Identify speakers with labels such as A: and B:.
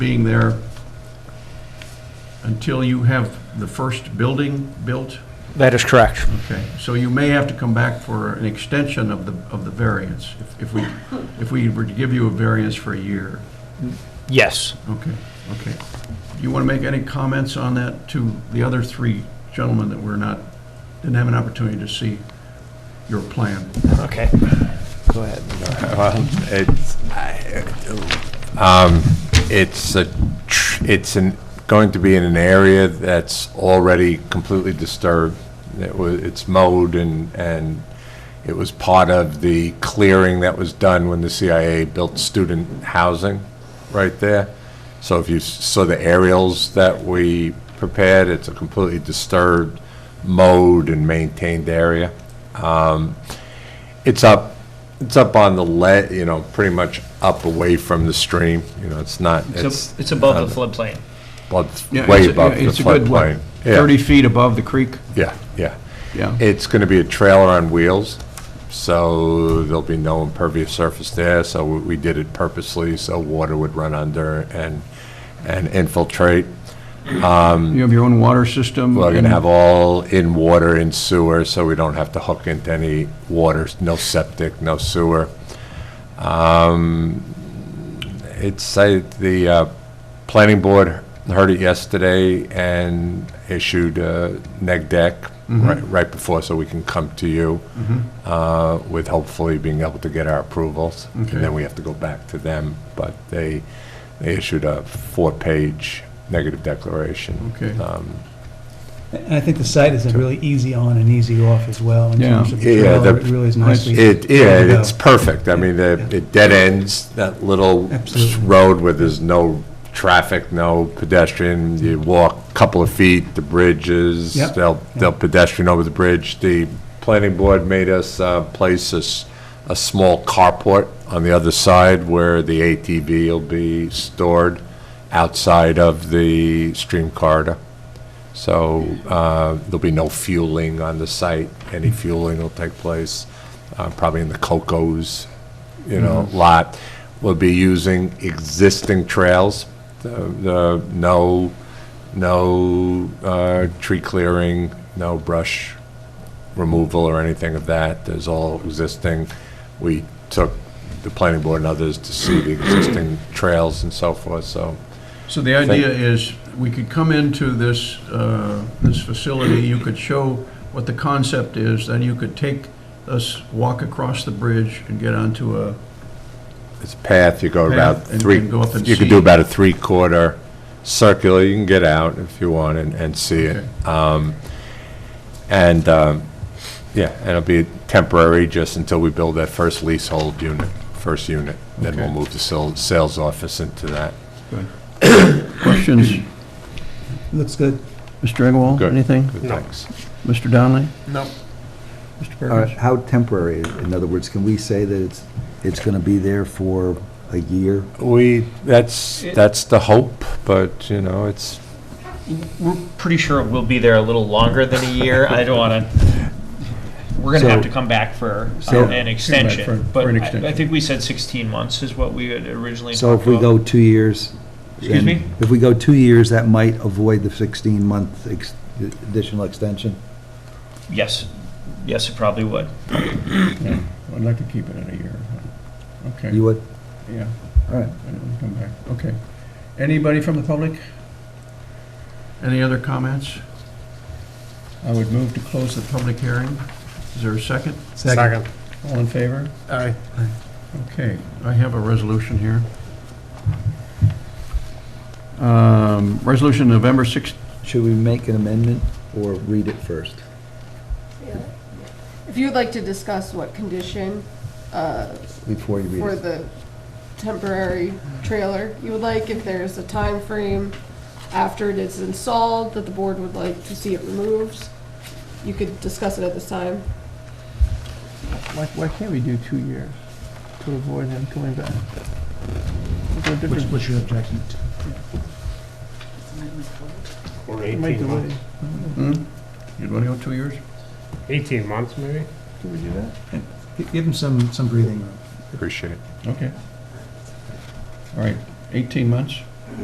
A: being there until you have the first building built?
B: That is correct.
A: Okay, so you may have to come back for an extension of the, of the variance, if- if we, if we were to give you a variance for a year.
B: Yes.
A: Okay, okay. You want to make any comments on that to the other three gentlemen that were not, didn't have an opportunity to see your plan?
B: Okay. Go ahead.
C: Well, it's, I- um, it's a, tr- it's an, going to be in an area that's already completely disturbed. It was, it's mowed and, and it was part of the clearing that was done when the CIA built student housing right there. So if you s- saw the aerials that we prepared, it's a completely disturbed, mowed and maintained area. It's up, it's up on the le, you know, pretty much up away from the stream, you know, it's not, it's
B: It's above the floodplain.
C: well, it's way above the
A: It's a good,
C: floodplain. Yeah,
A: 30 feet above the creek?
C: Yeah, yeah.
A: Yeah.
C: It's gonna be a trailer on wheels, so there'll be no impervious surface there, so we, we did it purposely, so water would run under and, and infiltrate.
A: You have your own water system?
C: We're
A: Um, and-
C: gonna have all in water and sewer, so we don't have to hook into any water, no septic, no sewer. Um, It's, I- the uh, planning board heard it yesterday and issued a neg deck
A: Mm-hmm.
C: right right before, so we can come to you uh, with hopefully being able to get our approvals. And
A: Okay.
C: then we have to go back to them, but they, they issued a four-page negative declaration.
A: Okay.
C: Um,
D: And I think the site is a really easy on and easy off as well, in
A: Yeah.
D: terms of the
C: Yeah,
D: trailer,
C: the-
D: it really is nicely.
C: It, yeah,
D: laid
C: it's
D: out.
C: perfect. I mean, the- it dead ends that little
D: Absolutely.
C: road where there's no traffic, no pedestrian. You walk a couple of feet, the bridge is,
D: Yep.
C: they'll, they'll pedestrian over the bridge. The planning board made us uh, place a, s- a small carport on the other side where the ATV will be stored outside of the stream corridor. So uh, there'll be no fueling on the site. Any fueling will take place uh, probably in the Cocos, you know, lot. We'll be using existing trails, the- the, no, no uh, tree clearing, no brush removal or anything of that. There's all existing. We took the planning board and others to see the existing trails and so forth, so.
A: So the idea is, we could come into this, uh, this facility, you could show what the concept is, then you could take us, walk across the bridge and get onto uh, a,
C: It's a path, you go
A: Path,
C: about
A: and
C: three,
A: can go up and
C: you could
A: see.
C: do about a three-quarter circular, you can get out if you want and, and see it. Um, And, um, yeah, and it'll be temporary just until we build that first leasehold unit, first unit. Then we'll
A: Okay.
C: move the sales, sales office into that.
A: questions?
D: Looks good.
A: Mr. Engwall,
C: Good.
A: anything?
C: Good, Thanks.
A: Mr. Donnelly?
B: No.
A: Mr.
E: All right,
A: Perkins?
E: How temporary, in other words, can we say that it's, it's going to be there for a year?
C: We, that's, that's the hope, but, you know, it's,
B: We're pretty sure we'll be there a little longer than a year. I don't want to, we're going to have
E: So-
B: to come back for uh,
E: So-
B: an extension.
A: for-
B: But
A: for an
B: I- I
A: extension.
B: think we said 16 months is what we had originally
E: So if
B: talked
E: we
B: about.
E: go two years.
B: Excuse
E: then-
B: me?
E: If we go two years, that might avoid the 16-month ex- additional extension?
B: Yes, yes, it probably would.
A: I'd like to keep it at a year. Okay,
E: You would?
A: yeah,
E: All right.
A: I don't want to come back, okay. Anybody from the public? Any other comments? I would move to close the public hearing. Is there a second?
D: Second.
A: All in favor? Aye. Okay, I have a resolution here. Um, Resolution November 6th,
E: Should we make an amendment or read it first?
F: If you'd like to discuss what condition uh,
E: Before you
F: for
E: read it?
F: the temporary trailer you would like, if there's a time frame after it is installed that the board would like to see it removed, you could discuss it at this time.
G: Why, why can't we do two years to avoid him coming back? What's the
D: What's,
G: difference?
D: what's your objection?
H: Or
G: It might
H: 18
G: delay.
H: months.
A: hmm? you want to go two years?
H: 18 months, maybe?
G: Can we do that?
D: Gi- Give them some, some breathing room.
C: appreciate it.
A: Okay. All right, 18 months?